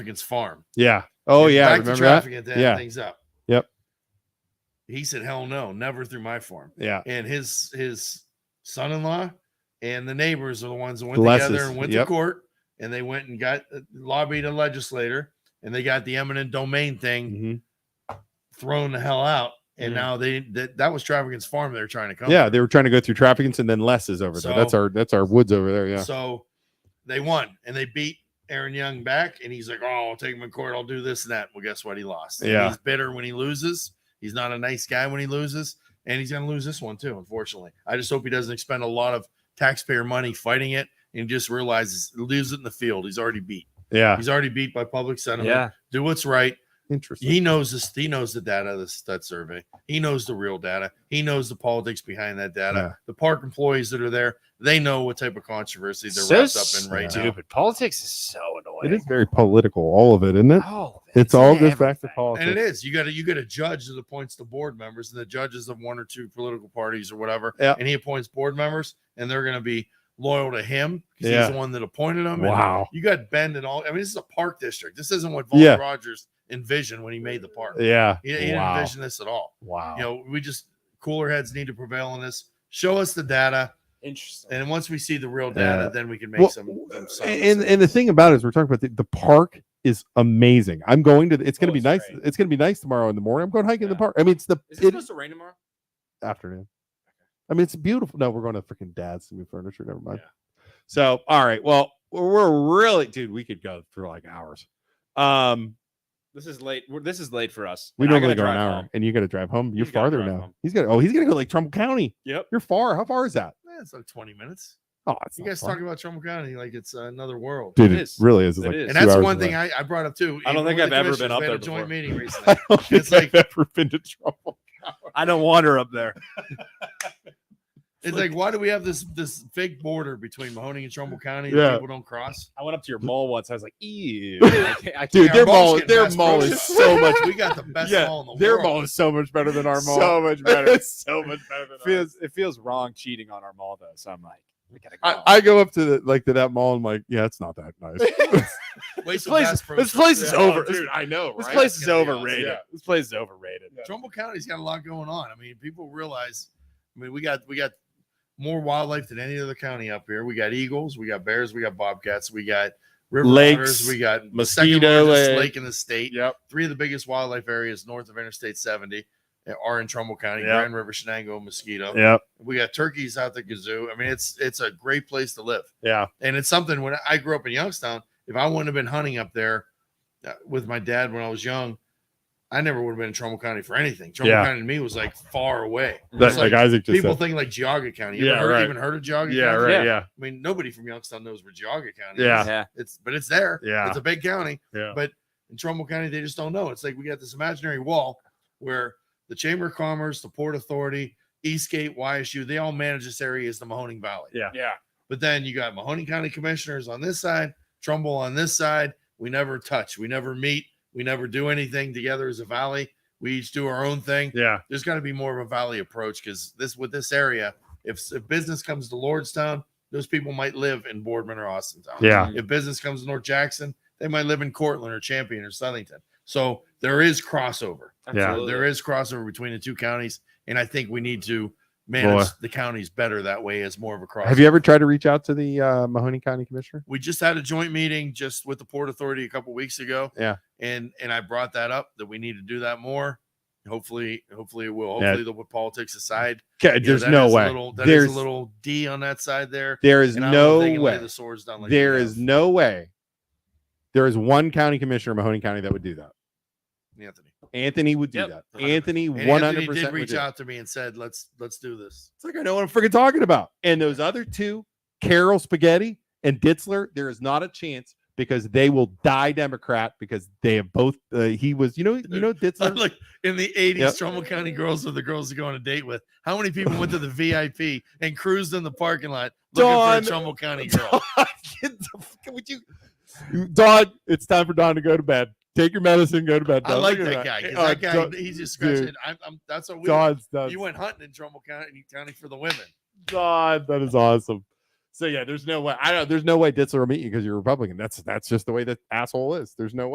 Trafficant's farm. Yeah. Oh Get yeah. back Remember to that? Trafficant to Yeah. end things up. Yep. He said, "Hell no, never through my farm." Yeah. And his his son-in-law and the neighbors are the ones that went Bless together us. and went Yep. to court, and they went and got uh, lobbied a legislator, and they got the eminent domain thing hmm thrown the hell out. And Mhm. now they that, that was Trafficant's farm they're trying to come. Yeah. They were trying to go through Trafficants and then Les is over there. That's So- our that's our woods over there. Yeah. So they won and they beat Aaron Young back. And he's like, Oh, I'll take him in court. I'll do this and that. Well, guess what? He lost. And Yeah. He's bitter when he loses. He's not a nice guy when he loses. And he's going to lose this one too, unfortunately. I just hope he doesn't expend a lot of taxpayer money fighting it and just realizes, leaves it in the field. He's already beat. Yeah. He's already beat by public sentiment. Yeah. Do what's right. Interesting. He knows this. He knows the data. of This that survey. He knows the real data. He knows the politics behind that data. Yeah. The park employees that are there, they know what type of controversy they're So wrapped up in right now. stupid. Politics is so It annoying. is very political, all of it, isn't it? Oh, It's all goes everything. back to politics. And it is. You got to you got a judge that appoints the board members, and the judges of one or two political parties or whatever. Yeah. And he appoints board members, and they're going to be loyal to him because Yeah. he's the one that appointed them. and Wow. you got Bend and all. I mean, this is a park district. This isn't what Vaughn Yeah. Rogers envisioned when he made the park. Yeah. He, he didn't Wow. envision this at all. Wow. you know, we just cooler heads need to prevail on this. Show us the data, Interesting. and once we see the real data, Yeah. then we can make Well, some. some and, solid and and the thing about it is we're talking about the, the park is amazing. I'm going to. the- It's going to Oh, be it's nice. great. It's going to be nice tomorrow in the morning. I'm going hiking in Yeah. the park. I mean, it's the Is it it, supposed to rain tomorrow? afternoon. I mean, it's beautiful. No, we're going to freaking dad's to move furniture. Never mind. Yeah. So, all right. Well, we're- we're really, dude. We could go for like hours. Um, This is late. We're, this is late for us. we and I normally go gotta an drive hour, home. and you got to drive home. You're You gotta farther drive now. home. He's got. Oh, he's gonna go like Trumbull County. Yep. You're far. How far is that? Eh, it's like twenty minutes. Oh, it's You not guys far. talking about Trumbull County like it's another world, dude. It It, is. really is. It's It like is. and two that's hours one away. thing I, I brought up too. I don't even think with I've the ever commissioners, been up we had there a joint before. meeting recently. I don't think It's like- I've ever been to Trumbull. I don't wander up there. It's like, why do we have this this fake border between Mahoney and Trumbull County that Yeah. people don't cross? I went up to your mall once. I was like, ew. I can't, I Dude, can't- their our mall's mall, getting their best mall is roads. so much. We got the best Yeah, mall in the Their world. mall is so much better than our mall. so much better. It's so much better than It ours. feels it feels wrong cheating on our mall though. So I'm like, we gotta go. I, I go up to the like to that mall and like, yeah, it's not that nice. Wait this till place, Bass is- Pro this Shop. place is Yeah. over. Oh, dude, I know, This right? place is Yeah. overrated. Yeah. This place is overrated. Trumbull County's got a lot going on. I mean, people realize. I mean, we got we got more wildlife than any other county up here. We got eagles, we got bears, we got bobcats, we got river Lakes, otters, we got the mosquito second largest lake. lake in the state. Yep. Three of the biggest wildlife areas north of Interstate 70 are in Trumbull County, Yeah. Grand River, Shenango, Mosquito. Yep. We got turkeys out the kazoo. I mean, it's it's a great place to live Yeah. and it's something when I grew up in Youngstown, if I wouldn't have been hunting up there uh, with my dad when I was young, I never would have been in Trumbull County for anything. Trumbull Yeah. County to me was like far away. That, It's like, like Isaac just people said. think like Geauga County. You Yeah, ever heard, right. even heard of Geauga yeah, County? right. Yeah. Yeah. yeah. I mean, nobody from Youngstown knows where Geauga County Yeah. is. It's but it's there. Yeah. It's a big county. Yeah. But in Trumbull County, they just don't know. It's like we got this imaginary wall where the Chamber of Commerce, the Port Authority, Eastgate, YSU, they all manage this area as the Mahoning Valley. Yeah. But then you got Mahoney County commissioners on this side, Trumbull on this side. We never touch. We never meet. We never do anything together as a valley. We each do our own thing. Yeah. There's got to be more of a valley approach because this with this area, if, if business comes to Lordstown, those people might live in Boardman or Austintown. Yeah. If business comes to North Jackson, they might live in Cortland or Champion or Southington. So there is crossover. So there is crossover between the two counties, and I think we need to manage Boy. the counties better that way as more of a crossover. Have you ever tried to reach out to the uh, Mahoney County Commissioner? we just had a joint meeting just with the port authority a couple weeks ago Yeah. and and i brought that up that we need to do that more hopefully hopefully it will Yeah. hopefully the politics aside Okay, You know, there's that no is a way. little, that is there's a little d on that side there there is and I don't know no if they can lay way. the swords down like they There is have. no way. There is one county commissioner in Mahoney County that would do that. anthony Anthony would do Yep. that. Anthony, And Anthony one hundred did percent reach out to me and said let's let's do this It's like I know what I'm freaking talking about. And those other two, Carol Spaghetti and Ditzler, there is not a chance because they will die Democrat because they have both. Uh, he was, you know, you know, Ditzler. look in the 80s Yep. trumbull county girls are the girls to go on a date with how many people went to the vip and cruised in the parking lot looking Dawn. for a trumbull county girl Get the fuck- would you, Don? It's time for Don to go to bed. Take your medicine. Go to bed. I Don. like Look that at guy. 'cause Uh, that guy, Don- he's just dude. scratching. I'm, I'm, that's what we. Don's nuts. you went hunting in Trumbull County, County for the women. God, that is awesome. So yeah, there's no way. I don't. There's no way Ditzler will meet you because you're Republican. That's that's just the way that asshole is. There's no way.